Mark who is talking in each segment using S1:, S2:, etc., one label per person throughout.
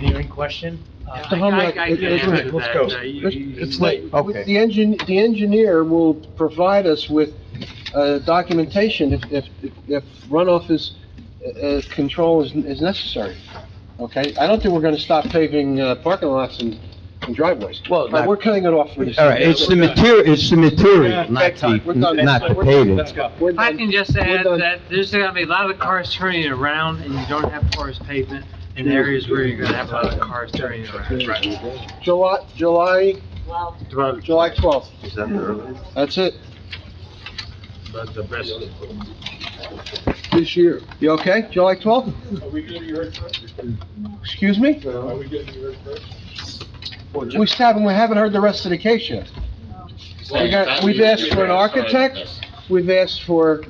S1: burning question. Uh,
S2: Mr. Hamlet,
S3: I- I- I
S2: it-
S3: can
S2: it's-
S3: answer
S1: let's
S3: that.
S1: go.
S3: Uh, you- you-
S2: It's
S3: you-
S2: late.
S1: Okay.
S2: The engine, the engineer will provide us with, uh, documentation if, if, if runoff is, uh, control is, is necessary. Okay? I don't think we're gonna stop paving, uh, parking lots and and driveways.
S4: Well,
S2: But
S4: not-
S2: we're cutting it off for this.
S5: All right, it's the material, it's the material, not
S2: We're done.
S5: the, not the
S2: We're-
S5: paving.
S1: Let's go.
S2: We're
S3: If I
S2: done.
S3: can just
S2: We're
S3: add
S2: done.
S3: that there's gonna be a lot of cars turning around and you don't have porous pavement in areas where you're gonna have a lot of cars turning around.
S2: July, July,
S3: Well,
S2: July twelfth.
S4: Is that the earliest?
S2: That's it.
S4: That's the best.
S2: This year. You okay? July twelfth?
S6: Are we getting heard first?
S2: Excuse me?
S6: Are we getting heard first?
S2: We still haven't, we haven't heard the rest of the case yet. We got, we've asked for an architect, we've asked for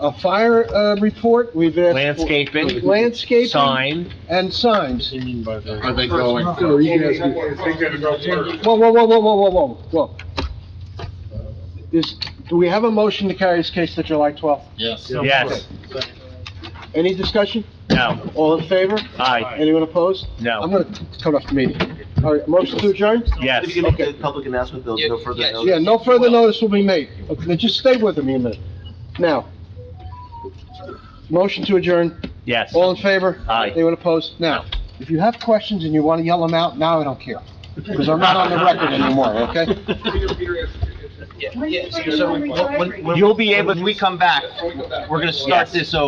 S2: a fire, uh, report, we've asked. for
S1: Landscaping.
S2: Landscaping
S1: Sign.
S2: and signs.
S4: Are they going?
S2: Whoa, whoa, whoa, whoa, whoa, whoa, whoa, whoa. Is, do we have a motion to carry this case to July twelfth?
S6: Yes.
S1: Yes.
S2: Any discussion?
S1: No.
S2: All in favor?
S1: Aye.
S2: Anyone opposed? I'm
S1: No.
S2: gonna cut off the meeting. All right, motion to adjourn?
S1: Yes.
S4: If you can make a public announcement, there'll be no further notice.
S2: Yeah, no further notice will be made. Okay, Just stay with me a minute. Now. Motion to adjourn.
S1: Yes.
S2: All in favor?
S1: Aye.
S2: Anyone opposed? Now, if you have questions and you want to yell them out, now I don't care, because I'm not on the record anymore, okay?
S4: Yeah, yeah, so- so when- when- when-
S1: You'll be able-
S4: When we come back,
S6: Before we go back.
S4: we're gonna start this over.